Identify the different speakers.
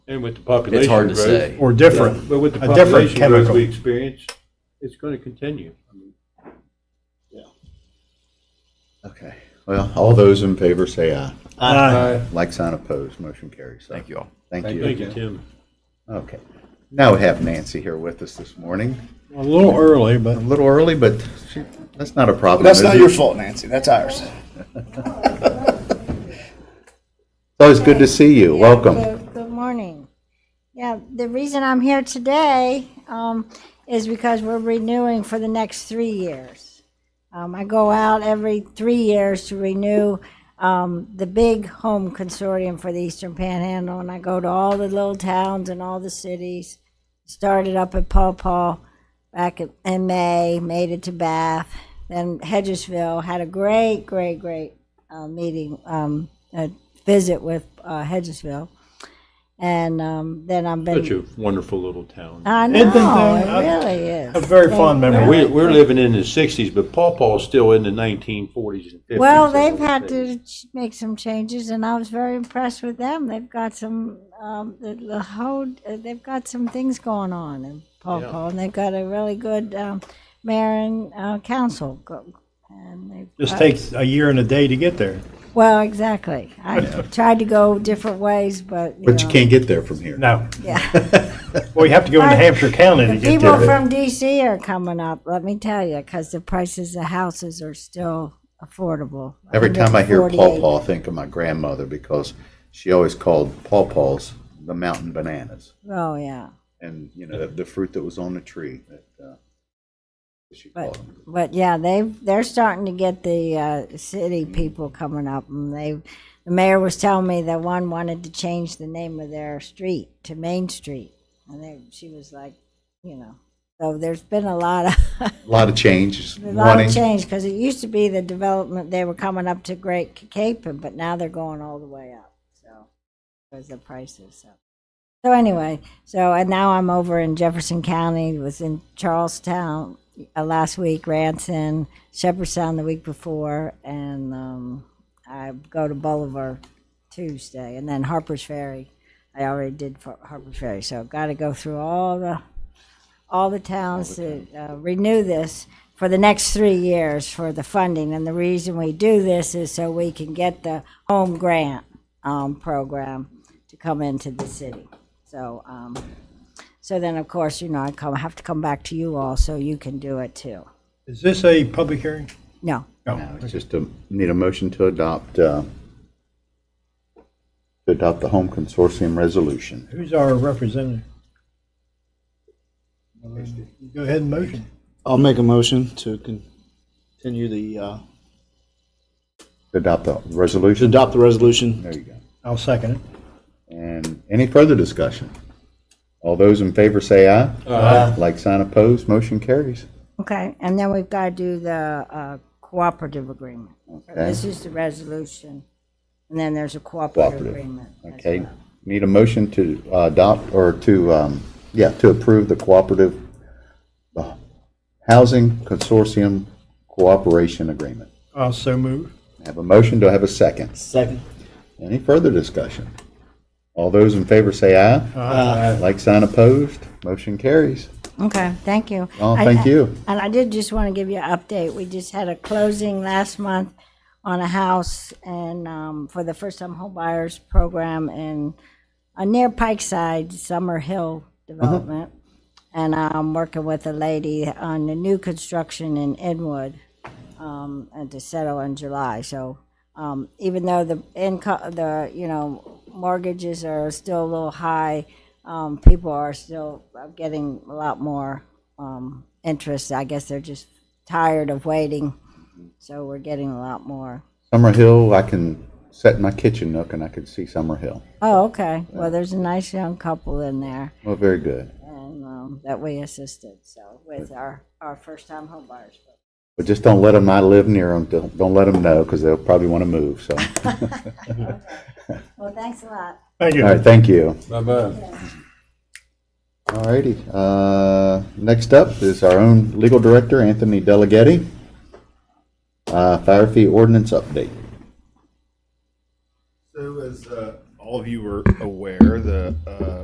Speaker 1: And with the population
Speaker 2: It's hard to
Speaker 1: growth-
Speaker 2: say.
Speaker 3: or different,
Speaker 1: But with the
Speaker 3: a different
Speaker 1: population growth
Speaker 3: chemical.
Speaker 1: we experience, it's going to continue. I mean,
Speaker 4: Okay. Well, all those in favor say aye.
Speaker 3: Uh,
Speaker 4: Like sign opposed, motion carries. So,
Speaker 2: Thank you all.
Speaker 4: Thank
Speaker 1: Thank
Speaker 4: you.
Speaker 1: you, Tim.
Speaker 4: Okay. Now we have Nancy here with us this morning.
Speaker 3: a little early,
Speaker 4: A
Speaker 3: but
Speaker 4: little early, but she- that's not a problem.
Speaker 5: That's
Speaker 4: is
Speaker 5: not
Speaker 4: it?
Speaker 5: your fault, Nancy. That's ours.
Speaker 4: It's always good to see you. Welcome.
Speaker 6: Good- Good morning. Yeah, the reason I'm here today um, is because we're renewing for the next three years. Um, I go out every three years to renew um, the big home consortium for the Eastern Panhandle, and I go to all the little towns and all the cities. Started up at Paw Paw back in- in May, made it to Bath, then Hedgesville, had a great, great, great uh, meeting, um, a visit with uh, Hedgesville. And um, then I've been.
Speaker 1: Such a wonderful little town.
Speaker 6: I know,
Speaker 3: Edmonton, uh,
Speaker 6: it really is.
Speaker 3: a very fond
Speaker 1: And we,
Speaker 3: memory.
Speaker 1: we're living in the sixties, but Paw Paw's still in the nineteen forties and fifties.
Speaker 6: Well, they've had to ch- make some changes, and I was very impressed with them. They've got some, um, the, the whole, uh, they've got some things going on in Paw
Speaker 1: Yeah.
Speaker 6: Paw, and they've got a really good um, mayor and uh, council. go- And they've
Speaker 3: Just
Speaker 6: got-
Speaker 3: takes a year and a day to get there.
Speaker 6: Well, exactly. I tried to go different ways, but you
Speaker 4: But you
Speaker 6: know.
Speaker 4: can't get there from here.
Speaker 3: No,
Speaker 6: Yeah.
Speaker 3: well, you have to go into
Speaker 6: Right.
Speaker 3: Hampshire County to
Speaker 6: The
Speaker 3: get
Speaker 6: people
Speaker 3: there.
Speaker 6: from DC are coming up, let me tell you, because the prices of houses are still affordable.
Speaker 4: Every time I hear Paw
Speaker 6: 148.
Speaker 4: Paw, I think of my grandmother because she always called Paw Paws the mountain bananas.
Speaker 6: Oh, yeah.
Speaker 4: And, you know, the fruit that was on the tree that uh, she called
Speaker 6: But,
Speaker 4: them.
Speaker 6: but yeah, they've, they're starting to get the uh, city people coming up and they, the mayor was telling me that one wanted to change the name of their street to Main Street. And they, she was like, you know, so there's been a lot of,
Speaker 4: A lot of changes.
Speaker 6: a lot
Speaker 4: wanting-
Speaker 6: of change because it used to be the development, they were coming up to Great Capen, but now they're going all the way up, so, because the prices, so. So anyway, so, and now I'm over in Jefferson County, was in Charlestown uh, last week, Ranson, Shepherdstown the week before, and um, I go to Bolivar Tuesday, and then Harper's Ferry. I already did for Harper's Ferry, so I've got to go through all the, all the towns to uh, renew this for the next three years for the funding. And the reason we do this is so we can get the home grant um, program to come into the city. So, um, so then, of course, you know, I come, have to come back to you all so you can do it too.
Speaker 3: Is this a public hearing?
Speaker 6: No,
Speaker 4: No, it's just a, need a motion to adopt, uh, to adopt the home consortium resolution.
Speaker 3: Who's our representative? Go ahead and motion.
Speaker 5: I'll make a motion to con- continue the, uh,
Speaker 4: To adopt the
Speaker 5: to
Speaker 4: resolution?
Speaker 5: adopt the resolution.
Speaker 4: There you go.
Speaker 3: I'll second it.
Speaker 4: And any further discussion? All those in favor say aye. Aye. Like sign opposed, motion carries.
Speaker 6: okay. And then we've got to do the uh, cooperative agreement.
Speaker 4: Okay,
Speaker 6: This is the resolution, and then there's a cooperative
Speaker 4: Cooperative.
Speaker 6: agreement. as
Speaker 4: okay.
Speaker 6: well.
Speaker 4: Need a motion to uh, adopt, or to, um, yeah, to approve the cooperative, uh, housing consortium cooperation agreement.
Speaker 3: I'll so move.
Speaker 4: Have a motion, do I have a second?
Speaker 5: Second.
Speaker 4: Any further discussion? All those in favor say aye.
Speaker 3: Aye.
Speaker 4: Like sign opposed, motion carries.
Speaker 6: Okay, thank you.
Speaker 4: Oh,
Speaker 6: I-
Speaker 4: thank you.
Speaker 6: And I did just want to give you an update. We just had a closing last month on a house and um, for the first time home buyers program in uh, near Pikeside Summer Hill development. And I'm working with a lady on the new construction in Inwood um, and to settle in July. So um, even though the income, the you know mortgages are still a little high, um, people are still uh, getting a lot more um, interest. I guess they're just tired of waiting, so we're getting a lot more.
Speaker 4: Summer Hill, I can set in my kitchen nook and I can see Summer Hill.
Speaker 6: Oh, okay. Well, there's a nice young couple in there,
Speaker 4: Well, very good.
Speaker 6: and um, that we assisted. So with our our first time home buyers.
Speaker 4: But just don't let them, I live near them, don't, don't let them know because they'll probably want to move, so.
Speaker 6: Well, thanks a lot.
Speaker 3: Thank
Speaker 4: All
Speaker 3: you.
Speaker 4: right, thank you.
Speaker 1: Bye-bye.
Speaker 4: All righty. Uh, Next up is our own legal director, Anthony Delegetti. Uh, Fire fee ordinance update.
Speaker 7: So as uh, all of you are aware, the uh,